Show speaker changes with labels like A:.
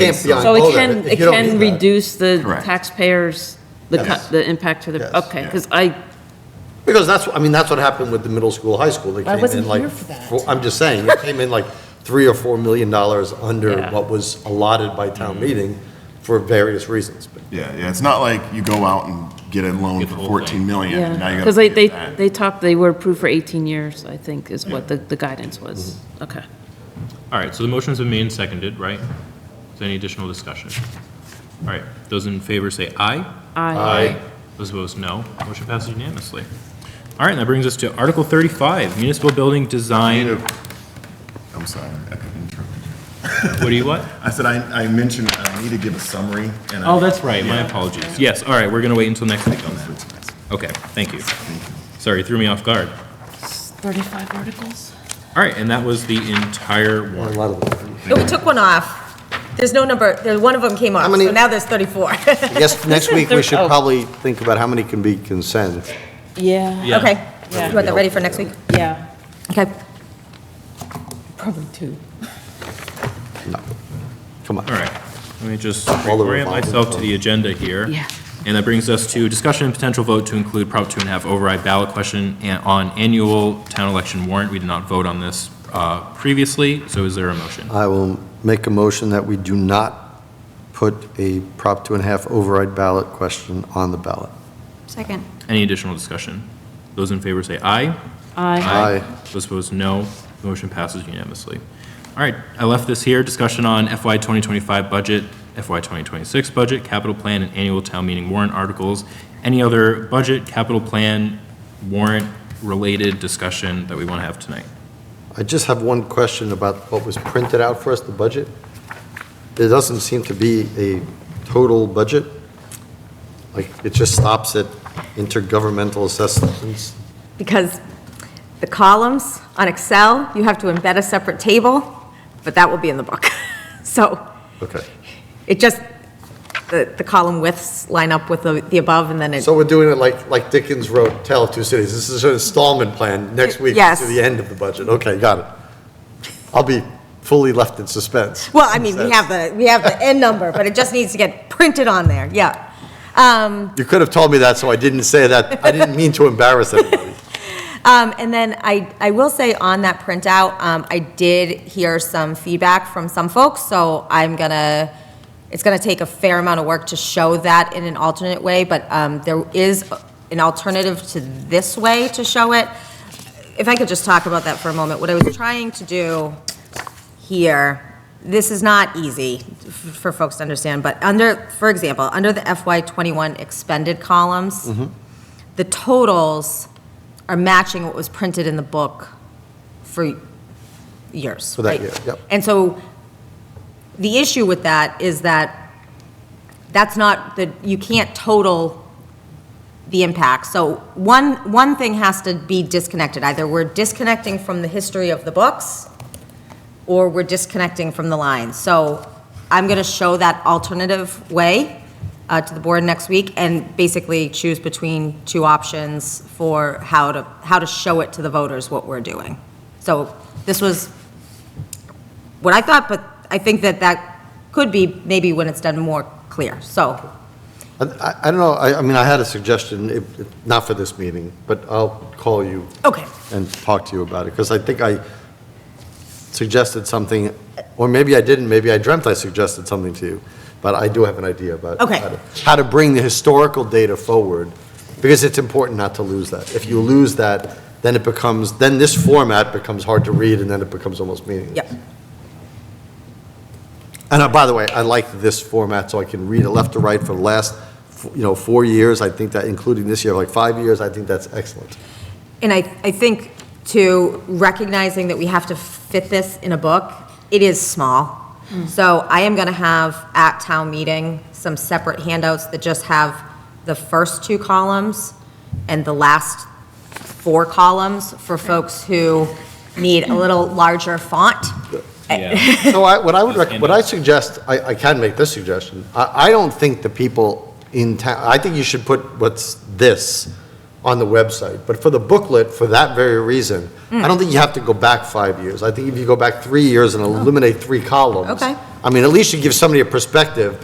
A: Can't be on
B: So it
A: both of
B: can,
A: If
B: it
A: you don't
B: can
A: need that.
B: reduce the
C: Correct.
B: taxpayers, the,
A: Yes.
B: cut- the impact to
A: Yes.
B: the, okay, because I,
A: Because that's, I mean, that's what happened with the middle school, high school. They
D: I
A: came
D: wasn't
A: in like
D: here for that.
A: four- I'm just saying, it came in like three or four million dollars under
B: Yeah. Mm-hmm.
A: what was allotted by town meeting for various reasons. But
C: Yeah, yeah, it's not like you go out and get a loan for 14 million, and now
B: yeah,
C: you
B: because they,
C: gotta pay
B: they,
C: it back.
B: they talked, they were approved for 18 years, I think, is what the, the guidance was.
A: Mm-hmm.
B: Okay.
E: All right, so the motion's been made and seconded, right? Is there any additional discussion? All right, those in favor say aye.
B: I
E: Those opposed, no. Motion passes unanimously. All right, and that brings us to Article 35, Municipal Building
C: Kind
E: Design.
C: of- I'm sorry, I could interrupt.
E: What do you what?
C: I said, I, I mentioned I need to give a summary, and I.
E: Oh, that's right, my apologies. Yes, all right, we're going to wait until next week on that. Okay, thank you. Sorry, threw me off guard.
D: 35 articles?
E: All right, and that was the entire
A: a
E: warrant.
A: lot of them.
F: No, Oh, we took one off. There's no number, there, one of them came off,
A: How many-
F: so now there's 34.
A: I guess next
B: is
A: week, we
B: thir-
A: should
B: oh.
A: probably think about how many can be consent.
D: Yeah,
E: Yeah.
F: Okay, you want that ready for next week?
D: yeah,
F: Okay.
D: probably two.
A: Come on.
E: All right, let me just
A: All the
E: orient
A: revolving
E: myself to the agenda here.
B: Yeah.
E: And that brings us to discussion and potential vote to include Prop Two and a Half override ballot question and- on annual town election warrant. We did not vote on this uh, previously, so is there a motion?
A: I will make a motion that we do not put a Prop two and a half override ballot question on the ballot.
F: Second.
E: Any additional discussion? Those in favor say aye.
B: I
A: Aye.
E: Those opposed, no. Motion passes unanimously. All right, I left this here, discussion on FY 2025 budget, FY 2026 budget, capital plan, and annual town meeting warrant articles. Any other budget, capital plan, warrant-related discussion that we want to have tonight?
A: I just have one question about what was printed out for us, the budget. There doesn't seem to be a total budget. Like, it just stops at intergovernmental assessments.
F: Because the columns on Excel, you have to embed a separate table, but that will be in the book. So
A: Okay.
F: it just, the, the column widths line up with the, the above, and then it,
A: So we're doing it like, like Dickens wrote Tale of Two Cities. This is an installment plan next week
F: Yes.
A: to the end of the budget. Okay, got it. I'll be fully left in suspense.
F: well, I mean, we have the, we have the end number, but it just needs to get printed on there, yeah. Um,
A: You could have told me that, so I didn't say that. I didn't mean to embarrass anybody.
F: Um, and then I, I will say on that printout, um, I did hear some feedback from some folks, so I'm gonna, it's gonna take a fair amount of work to show that in an alternate way, but, um, there is an alternative to this way to show it. If I could just talk about that for a moment, what I was trying to do here, this is not easy f- for folks to understand, but under, for example, under the FY twenty-one expended columns,
A: Mm-hmm.
F: the totals are matching what was printed in the book for years.
A: For that
F: right?
A: year, yep.
F: And so the issue with that is that that's not, the you can't total the impact. So one, one thing has to be disconnected. Either we're disconnecting from the history of the books, or we're disconnecting from the line. So I'm going to show that alternative way uh, to the board next week and basically choose between two options for how to, how to show it to the voters what we're doing. So this was what I thought, but I think that that could be maybe when it's done more clear. So,
A: I, I- I don't know, I, I mean, I had a suggestion, it- it- not for this meeting, but I'll call you
F: okay.
A: and talk to you about it, because I think I suggested something, or maybe I didn't, maybe I dreamt I suggested something to you, but I do have an idea about.
F: Okay.
A: how to- How to bring the historical data forward, because it's important not to lose that. If you lose that, then it becomes, then this format becomes hard to read, and then it becomes almost meaningless.
F: Yep.
A: And uh, by the way, I like this format, so I can read it left to right for the last, you know, four years. I think that, including this year, like five years, I think that's excellent.
F: And I, I think too, recognizing that we have to fit this in a book, it is small. So I am gonna have at town meeting some separate handouts that just have the first two columns and the last four columns for folks who need a little larger font.
E: Yeah.
A: No, I, what I would, rec- what I suggest, I, I can make this suggestion. I, I don't think the people in town, I think you should put what's this on the website. But for the booklet, for that very reason, I don't think you have to go back five years. I think if you go back three years and eliminate three columns.
F: Okay.
A: I mean, at least you give somebody a perspective,